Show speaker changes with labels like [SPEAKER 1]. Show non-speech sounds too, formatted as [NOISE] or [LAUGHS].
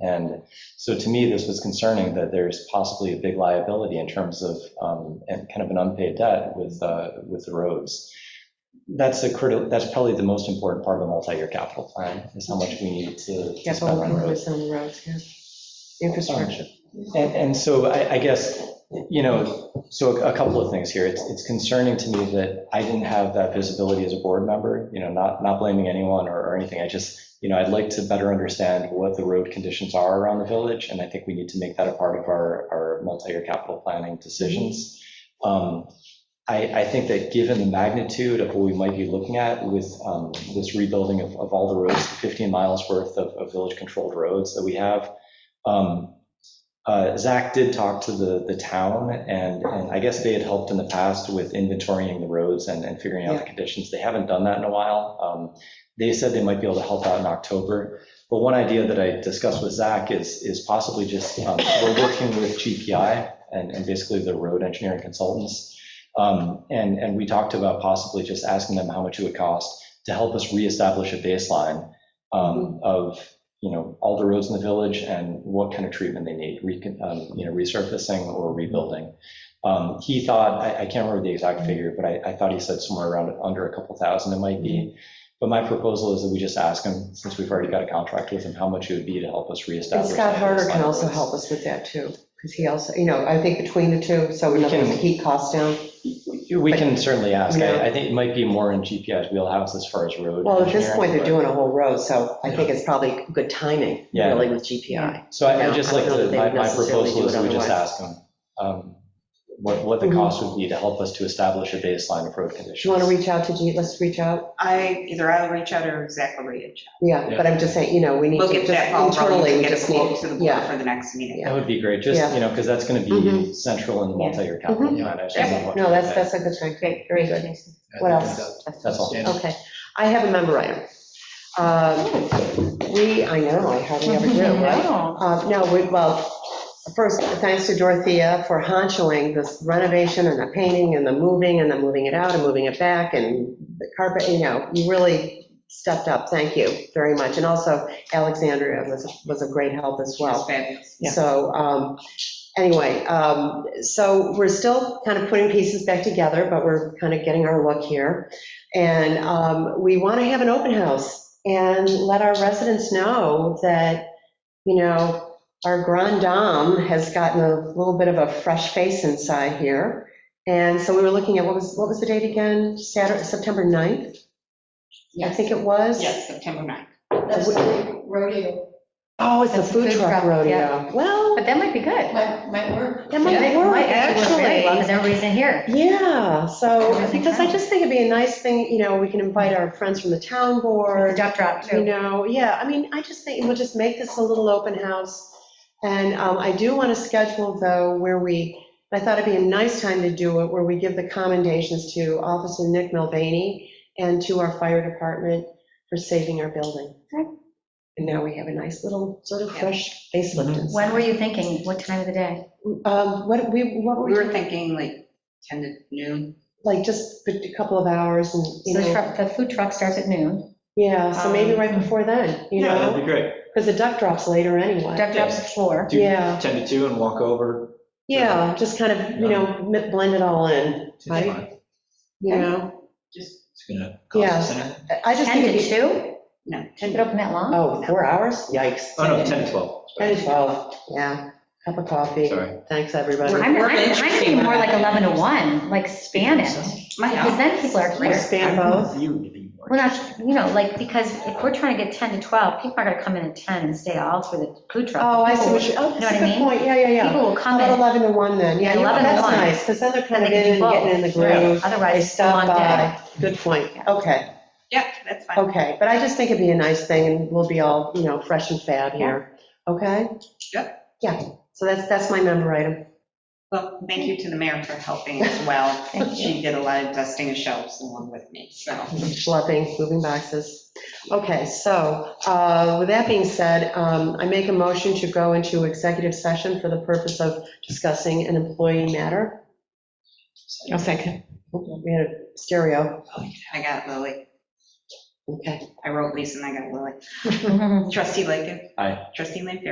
[SPEAKER 1] And so to me, this was concerning that there's possibly a big liability in terms of um, and kind of an unpaid debt with, uh, with the roads. That's a critical, that's probably the most important part of the multi-year capital plan, is how much we need to to spend
[SPEAKER 2] Capital
[SPEAKER 1] on roads.
[SPEAKER 2] improvements on roads, yeah. Infrastructure.
[SPEAKER 1] And, and so I, I guess, you know, so a a couple of things here. It's, it's concerning to me that I didn't have that visibility as a board member, you know, not, not blaming anyone or, or anything. I just, you know, I'd like to better understand what the road conditions are around the village, and I think we need to make that a part of our, our multi-year capital planning decisions. Um, I, I think that given the magnitude of what we might be looking at with um, this rebuilding of, of all the roads, 15 miles worth of, of village-controlled roads that we have, um, uh, Zach did talk to the, the town, and, and I guess they had helped in the past with inventorying the roads and, and figuring out the conditions. They haven't done that in a while. Um, They said they might be able to help out in October. But one idea that I discussed with Zach is, is possibly just, um, we're working with GPI and, and basically the road engineering consultants. Um, And, and we talked about possibly just asking them how much it would cost to help us reestablish a baseline um, of, you know, all the roads in the village and what kind of treatment they need, recon- um, you know, resurfacing or rebuilding. Um, He thought, I, I can't remember the exact figure, but I, I thought he said somewhere around under a couple thousand it might be. But my proposal is that we just ask him, since we've already got a contract with him, how much it would be to help us
[SPEAKER 2] And
[SPEAKER 1] reestablish.
[SPEAKER 2] Scott
[SPEAKER 1] that
[SPEAKER 2] Harder
[SPEAKER 1] baseline
[SPEAKER 2] can also
[SPEAKER 1] roads.
[SPEAKER 2] help us with that too, because he also, you know, I think between the two, so we know
[SPEAKER 1] can-
[SPEAKER 2] the heat costs down.
[SPEAKER 1] We can certainly ask.
[SPEAKER 2] Yeah.
[SPEAKER 1] I, I think it might be more in GPI's wheelhouse as far as road.
[SPEAKER 2] Well, at this
[SPEAKER 1] engineering,
[SPEAKER 2] point, they're
[SPEAKER 1] but-
[SPEAKER 2] doing a whole road, so I think it's probably good timing,
[SPEAKER 1] Yeah.
[SPEAKER 2] really, with GPI.
[SPEAKER 1] So I would
[SPEAKER 2] Yeah,
[SPEAKER 1] just
[SPEAKER 2] I
[SPEAKER 1] like,
[SPEAKER 2] don't know
[SPEAKER 1] to-
[SPEAKER 2] that they
[SPEAKER 1] my
[SPEAKER 2] would
[SPEAKER 1] my
[SPEAKER 2] necessarily
[SPEAKER 1] proposal
[SPEAKER 2] do
[SPEAKER 1] is
[SPEAKER 2] it
[SPEAKER 1] we just
[SPEAKER 2] otherwise.
[SPEAKER 1] ask them um, what, what the
[SPEAKER 2] Mhm.
[SPEAKER 1] cost would be to help us to establish a baseline of road conditions.
[SPEAKER 2] Do you want to reach out to G, let's reach out?
[SPEAKER 3] I, either I'll reach out or Zach will reach out.
[SPEAKER 2] Yeah, but I'm just saying, you know, we need to
[SPEAKER 3] We'll get
[SPEAKER 2] just
[SPEAKER 3] that ball rolling
[SPEAKER 2] internally,
[SPEAKER 3] and
[SPEAKER 2] we
[SPEAKER 3] get a
[SPEAKER 2] just
[SPEAKER 3] quote
[SPEAKER 2] need,
[SPEAKER 3] to the board
[SPEAKER 2] yeah.
[SPEAKER 3] for the next meeting.
[SPEAKER 1] That would be great, just,
[SPEAKER 2] Yeah.
[SPEAKER 1] you know, because that's going to be
[SPEAKER 2] Mhm.
[SPEAKER 1] central in the
[SPEAKER 3] Yeah.
[SPEAKER 1] multi-year capital
[SPEAKER 2] Mhm.
[SPEAKER 1] plan. I just
[SPEAKER 3] Yeah.
[SPEAKER 1] don't know what
[SPEAKER 2] No, that's,
[SPEAKER 1] to
[SPEAKER 2] that's a good thing. Great, very good.
[SPEAKER 4] I
[SPEAKER 2] What
[SPEAKER 4] think
[SPEAKER 2] else?
[SPEAKER 1] say. That's all.
[SPEAKER 4] that's-
[SPEAKER 2] Okay, I have a member item. Um, We, I know, I hardly ever do, right? Uh, No, we, well, first, thanks to Dorothea for honchoing this renovation and the painting and the moving and the moving it out and moving it back and the carpet, you know, you really stepped up. Thank you very much. And also Alexandria was, was of great help as well.
[SPEAKER 3] That's fabulous.
[SPEAKER 2] So, um, anyway, um, so we're still kind of putting pieces back together, but we're kind of getting our look here. And um, we want to have an open house and let our residents know that, you know, our grand dame has gotten a little bit of a fresh face inside here. And so we were looking at, what was, what was the date again? Saturday, September 9th, I think it was?
[SPEAKER 3] Yes, September 9th.
[SPEAKER 5] That's the rodeo.
[SPEAKER 2] Oh, it's the
[SPEAKER 6] That's
[SPEAKER 2] food
[SPEAKER 6] food
[SPEAKER 2] truck
[SPEAKER 6] truck,
[SPEAKER 2] rodeo.
[SPEAKER 6] yeah.
[SPEAKER 2] Well.
[SPEAKER 6] But that might be good.
[SPEAKER 5] Might, might work.
[SPEAKER 2] That might
[SPEAKER 6] It
[SPEAKER 2] work,
[SPEAKER 6] really well,
[SPEAKER 2] actually.
[SPEAKER 6] Because everybody's in here.
[SPEAKER 2] Yeah, so,
[SPEAKER 6] Everything
[SPEAKER 2] because I
[SPEAKER 6] counts.
[SPEAKER 2] just think it'd be a nice thing, you know, we can invite our friends from the town
[SPEAKER 6] Or the
[SPEAKER 2] board,
[SPEAKER 6] duck drop
[SPEAKER 2] you
[SPEAKER 6] too.
[SPEAKER 2] know, yeah, I mean, I just think we'll just make this a little open house. And um, I do want to schedule though where we, I thought it'd be a nice time to do it, where we give the commendations to Officer Nick Mulvaney and to our fire department for saving our building.
[SPEAKER 6] Okay.
[SPEAKER 2] And now we have a nice little sort of fresh facelift. inside.
[SPEAKER 6] Mm-hmm. When were you thinking? What time of the day?
[SPEAKER 2] Um, What, we, what
[SPEAKER 3] We
[SPEAKER 2] were
[SPEAKER 3] were
[SPEAKER 2] we,
[SPEAKER 3] thinking like 10 to noon.
[SPEAKER 2] like just a couple of hours and, you
[SPEAKER 6] So
[SPEAKER 2] know.
[SPEAKER 6] the truck- the food truck starts at noon.
[SPEAKER 2] Yeah, so maybe
[SPEAKER 6] Um,
[SPEAKER 2] right before then, you
[SPEAKER 4] Yeah, that'd
[SPEAKER 2] know,
[SPEAKER 4] be great.
[SPEAKER 2] because the duck drops later anyway.
[SPEAKER 6] Duck drop's at four.
[SPEAKER 4] Do
[SPEAKER 2] Yeah,
[SPEAKER 4] 10 to 2 and walk over.
[SPEAKER 2] yeah, just kind of, you know, mi- blend it all in,
[SPEAKER 4] It's
[SPEAKER 2] right?
[SPEAKER 4] fine.
[SPEAKER 2] You know,
[SPEAKER 3] Just,
[SPEAKER 4] It's gonna cost us anything.
[SPEAKER 2] I just
[SPEAKER 6] 10
[SPEAKER 2] think
[SPEAKER 6] to
[SPEAKER 2] it'd be,
[SPEAKER 6] 2?
[SPEAKER 3] no, 10
[SPEAKER 6] Keep it
[SPEAKER 3] to
[SPEAKER 6] open that long?
[SPEAKER 2] oh, four hours? Yikes.
[SPEAKER 4] Oh, no, 10 to 12.
[SPEAKER 2] Ten to 12, yeah, cup of coffee.
[SPEAKER 4] Sorry.
[SPEAKER 2] Thanks,
[SPEAKER 6] I'm,
[SPEAKER 2] everybody.
[SPEAKER 6] I'm
[SPEAKER 3] We're
[SPEAKER 6] I'm
[SPEAKER 3] interesting.
[SPEAKER 6] thinking more like 11 to 1, like span it.
[SPEAKER 3] My
[SPEAKER 6] Because
[SPEAKER 3] house.
[SPEAKER 6] then people are
[SPEAKER 2] Or
[SPEAKER 6] here.
[SPEAKER 2] span both.
[SPEAKER 4] You to be more.
[SPEAKER 6] Well, not, you know, like, because if we're trying to get 10 to 12, people are going to come in at 10 and stay all through the food truck.
[SPEAKER 2] Oh, I see what
[SPEAKER 6] People
[SPEAKER 2] you, oh,
[SPEAKER 6] Know what
[SPEAKER 2] that's a
[SPEAKER 6] I
[SPEAKER 2] good
[SPEAKER 6] mean?
[SPEAKER 2] point, yeah, yeah,
[SPEAKER 6] will-
[SPEAKER 2] yeah.
[SPEAKER 6] People will
[SPEAKER 2] How
[SPEAKER 6] come
[SPEAKER 2] about
[SPEAKER 6] in.
[SPEAKER 2] 11 to 1 then? Yeah, you
[SPEAKER 6] Yeah,
[SPEAKER 2] know,
[SPEAKER 6] 11 to
[SPEAKER 2] that's
[SPEAKER 6] 1.
[SPEAKER 2] nice, because then they're kind of
[SPEAKER 6] They can
[SPEAKER 2] in and
[SPEAKER 6] do
[SPEAKER 2] getting in the
[SPEAKER 6] both.
[SPEAKER 2] groove. They
[SPEAKER 6] Otherwise, it's a
[SPEAKER 2] stop
[SPEAKER 6] long day.
[SPEAKER 2] by. Good point,
[SPEAKER 6] Yeah.
[SPEAKER 2] okay.
[SPEAKER 3] Yeah, that's fine.
[SPEAKER 2] Okay, but I just think it'd be a nice thing, and we'll be all, you know, fresh and fab here, okay?
[SPEAKER 3] Yep.
[SPEAKER 2] Yeah, so that's, that's my member item.
[SPEAKER 3] Well, thank you to the mayor for
[SPEAKER 2] [LAUGHS]
[SPEAKER 3] helping as well.
[SPEAKER 6] Thank you.
[SPEAKER 3] She did a lot of dusting of shelves along with me, so.
[SPEAKER 2] Schlepping, moving boxes. Okay, so uh, with that being said, um, I make a motion to go into executive session for the purpose of discussing an employee matter. A second. We had a stereo,
[SPEAKER 3] I got Lily.
[SPEAKER 2] okay.
[SPEAKER 6] [LAUGHS]
[SPEAKER 3] I wrote Lisa and I got Lily. Trustee Lakin.
[SPEAKER 1] Aye.
[SPEAKER 3] Trustee Lanfair.